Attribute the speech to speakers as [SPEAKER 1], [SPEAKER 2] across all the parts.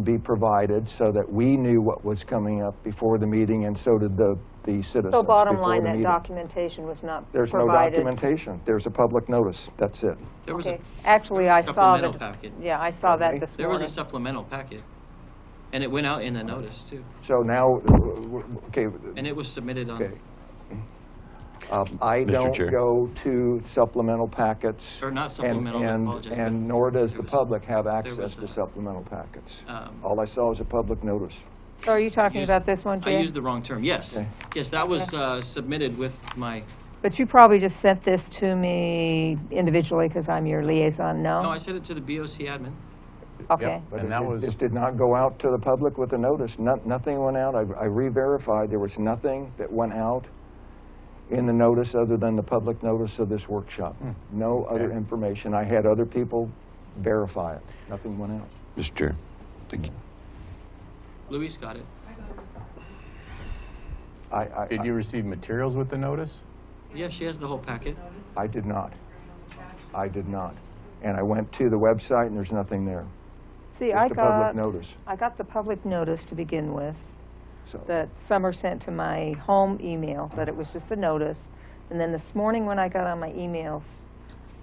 [SPEAKER 1] be provided so that we knew what was coming up before the meeting, and so did the, the citizens.
[SPEAKER 2] So bottom
[SPEAKER 1] before
[SPEAKER 2] line,
[SPEAKER 1] the
[SPEAKER 2] that
[SPEAKER 1] meeting.
[SPEAKER 2] documentation was not provided.
[SPEAKER 1] There's no documentation. There's a public notice. That's it.
[SPEAKER 3] There was a,
[SPEAKER 2] Okay, actually, I saw
[SPEAKER 3] supplemental
[SPEAKER 2] that,
[SPEAKER 3] packet.
[SPEAKER 2] yeah, I saw that
[SPEAKER 1] Okay.
[SPEAKER 2] this
[SPEAKER 3] there was a
[SPEAKER 2] morning.
[SPEAKER 3] supplemental packet, and it went out in the notice too,
[SPEAKER 1] So now, uh, w- w- okay,
[SPEAKER 3] and it was submitted
[SPEAKER 1] okay.
[SPEAKER 3] on,
[SPEAKER 1] Um, I
[SPEAKER 4] Mr.
[SPEAKER 1] don't
[SPEAKER 4] Chair.
[SPEAKER 1] go to supplemental packets.
[SPEAKER 3] or not
[SPEAKER 1] and-
[SPEAKER 3] supplemental, I
[SPEAKER 1] and-
[SPEAKER 3] apologize. but
[SPEAKER 1] And nor does the
[SPEAKER 3] there was-
[SPEAKER 1] public have access
[SPEAKER 3] was
[SPEAKER 1] to
[SPEAKER 3] a-
[SPEAKER 1] supplemental packets.
[SPEAKER 3] um,
[SPEAKER 1] All I saw was a public notice.
[SPEAKER 2] So are you talking
[SPEAKER 3] used-
[SPEAKER 2] about this one,
[SPEAKER 3] I
[SPEAKER 2] Jim?
[SPEAKER 3] used the wrong term, yes.
[SPEAKER 1] Okay.
[SPEAKER 3] Yes, that was uh, submitted with my,
[SPEAKER 2] But you probably just sent this to me individually because I'm your liaison, no?
[SPEAKER 3] no, I sent it to the BOC admin.
[SPEAKER 2] Okay,
[SPEAKER 1] But
[SPEAKER 5] And
[SPEAKER 1] it-
[SPEAKER 5] that
[SPEAKER 1] it-
[SPEAKER 5] was-
[SPEAKER 1] This did not go out to the public with a notice. No- Nothing went out. I I re-verified. There was nothing that went out in the notice other than the public notice of this workshop.
[SPEAKER 5] Hmm.
[SPEAKER 1] No other information. I had other people verify it. Nothing went out.
[SPEAKER 4] Mr. Chair, thank you.
[SPEAKER 3] Luis got it.
[SPEAKER 1] I- I,
[SPEAKER 5] Did you receive materials with the notice?
[SPEAKER 3] Yeah, she has the whole packet.
[SPEAKER 1] I did not. I did not. And I went to the website and there's nothing there.
[SPEAKER 2] see, I
[SPEAKER 1] Just a public
[SPEAKER 2] got,
[SPEAKER 1] notice.
[SPEAKER 2] I got the public notice to begin with,
[SPEAKER 1] So
[SPEAKER 2] that Summer sent to my home email, that it was just a notice. And then this morning, when I got on my emails,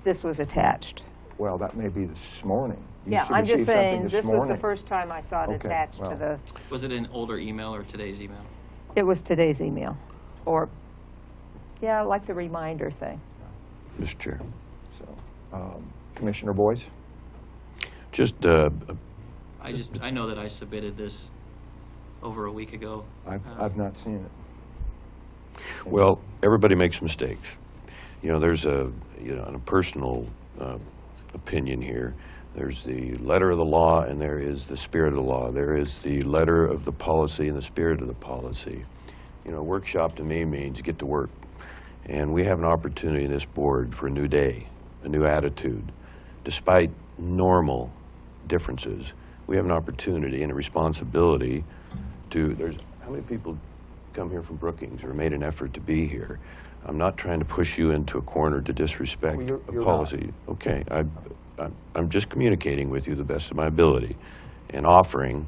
[SPEAKER 2] this was attached.
[SPEAKER 1] Well, that may be this morning. You
[SPEAKER 2] Yeah,
[SPEAKER 1] should
[SPEAKER 2] I'm just
[SPEAKER 1] receive something
[SPEAKER 2] saying, this was the
[SPEAKER 1] morning.
[SPEAKER 2] first time I saw it
[SPEAKER 1] Okay,
[SPEAKER 2] attached to
[SPEAKER 1] well.
[SPEAKER 2] the,
[SPEAKER 3] Was it an older email or today's email?
[SPEAKER 2] it was today's email, or, yeah, like the reminder thing.
[SPEAKER 4] Mr. Chair,
[SPEAKER 1] So, um, Commissioner Boyce?
[SPEAKER 4] just uh,
[SPEAKER 3] I just, I know that I submitted this over a week ago.
[SPEAKER 1] I've,
[SPEAKER 3] Uh,
[SPEAKER 1] I've not seen it.
[SPEAKER 4] Well, everybody makes mistakes. You know, there's a, you know, a personal uh, opinion here. There's the letter of the law and there is the spirit of the law. There is the letter of the policy and the spirit of the policy. You know, workshop to me means get to work. And we have an opportunity in this board for a new day, a new attitude. Despite normal differences, we have an opportunity and a responsibility to, there's, how many people come here from Brookings or made an effort to be here? I'm not trying to push you into a corner to disrespect
[SPEAKER 1] Well, you're-
[SPEAKER 4] a
[SPEAKER 1] you're not.
[SPEAKER 4] policy. Okay, I, I'm- I'm just communicating with you the best of my ability and offering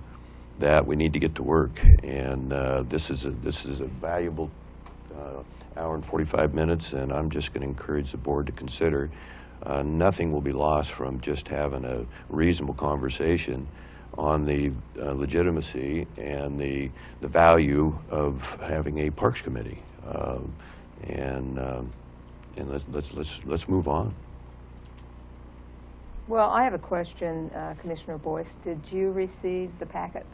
[SPEAKER 4] that we need to get to work. And uh, this is, a this is a valuable uh, hour and 45 minutes, and I'm just going to encourage the board to consider, uh, nothing will be lost from just having a reasonable conversation on the uh, legitimacy and the, the value of having a Parks Committee. Um, And, um, and let's, let's, let's let's move on.
[SPEAKER 2] Well, I have a question, uh, Commissioner Boyce. Did you receive the packet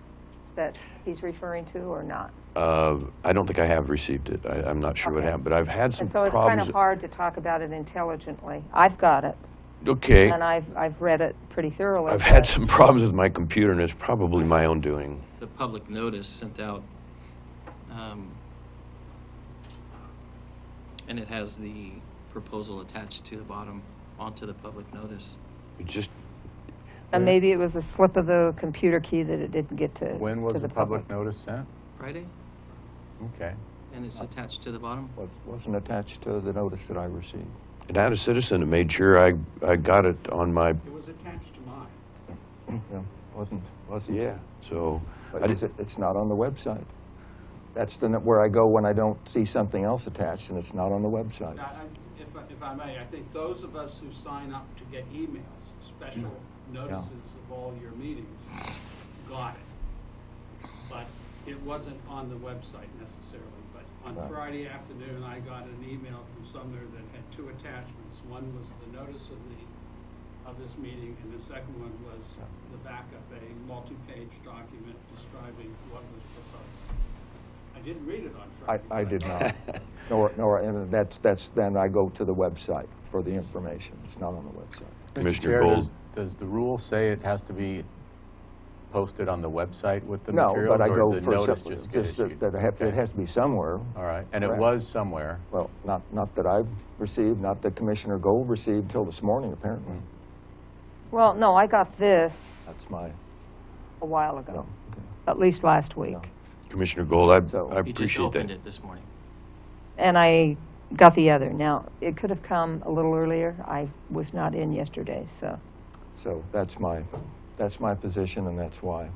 [SPEAKER 2] that he's referring to or not?
[SPEAKER 4] Uh, I don't think I have received it. I, I'm not sure what
[SPEAKER 2] Okay.
[SPEAKER 4] happened, but I've had some
[SPEAKER 2] And so it's kind of
[SPEAKER 4] problems.
[SPEAKER 2] hard to talk about it intelligently. I've got it,
[SPEAKER 4] Okay,
[SPEAKER 2] and I've, I've read it pretty thoroughly.
[SPEAKER 4] I've had
[SPEAKER 2] but-
[SPEAKER 4] some problems with my computer, and it's probably my own doing.
[SPEAKER 3] The public notice sent out, um, and it has the proposal attached to the bottom onto the public notice.
[SPEAKER 4] It just,
[SPEAKER 2] And maybe it was a slip of the computer key that it didn't get to.
[SPEAKER 5] When
[SPEAKER 2] to
[SPEAKER 5] was the public notice sent?
[SPEAKER 3] Friday,
[SPEAKER 5] Okay.
[SPEAKER 3] and
[SPEAKER 4] Uh,
[SPEAKER 3] it's attached to the bottom.
[SPEAKER 1] Was- Wasn't attached to the notice that I received.
[SPEAKER 4] And I had a citizen that made sure I, I got it on my,
[SPEAKER 6] It was attached to mine.
[SPEAKER 1] Yeah, Wasn't, wasn't.
[SPEAKER 4] yeah, so. I
[SPEAKER 1] But
[SPEAKER 4] did-
[SPEAKER 1] is it, it's not on the website. That's the, n- where I go when I don't see something else attached, and it's not on the website.
[SPEAKER 6] Now, I- If, I- if I may, I think those of us who sign up to get emails, special notices of all your meetings, got it. But it wasn't on the website necessarily, but
[SPEAKER 1] Right.
[SPEAKER 6] on Friday afternoon, I got an email from Sumner that had two attachments. One was the notice of the, of this meeting, and the second one was the backup, a multi-page document describing what was proposed. I didn't read it on
[SPEAKER 1] I,
[SPEAKER 6] Friday.
[SPEAKER 1] I
[SPEAKER 6] but
[SPEAKER 1] did not. Nor, nor, and that's, that's, then I go to the website for the information. It's not on the website.
[SPEAKER 5] Mr.
[SPEAKER 4] Commissioner
[SPEAKER 5] Chair,
[SPEAKER 4] Gold.
[SPEAKER 5] does- Does the rule say it has to be posted on the website with the
[SPEAKER 1] No,
[SPEAKER 5] materials?
[SPEAKER 1] but I
[SPEAKER 5] Or
[SPEAKER 1] go
[SPEAKER 5] did the
[SPEAKER 1] for,
[SPEAKER 5] notice
[SPEAKER 1] some-
[SPEAKER 5] just get
[SPEAKER 1] just that
[SPEAKER 5] issued?
[SPEAKER 1] that I have, it
[SPEAKER 5] Okay.
[SPEAKER 1] has to be somewhere.
[SPEAKER 5] All right, and it
[SPEAKER 1] Correct.
[SPEAKER 5] was somewhere.
[SPEAKER 1] Well, not, not that I've received, not that Commissioner Gold received till this morning,
[SPEAKER 5] Mm.
[SPEAKER 1] apparently.
[SPEAKER 2] Well, no, I got this
[SPEAKER 1] That's my,
[SPEAKER 2] a while
[SPEAKER 1] no,
[SPEAKER 2] ago,
[SPEAKER 1] okay.
[SPEAKER 2] at least last week.
[SPEAKER 4] Commissioner Gold, I,
[SPEAKER 1] So-
[SPEAKER 4] I
[SPEAKER 3] You just
[SPEAKER 4] appreciate
[SPEAKER 3] opened
[SPEAKER 4] that.
[SPEAKER 3] it this morning.
[SPEAKER 2] And I got the other. Now, it could have come a little earlier. I was not in yesterday, so.
[SPEAKER 1] So that's my, that's my position, and that's why.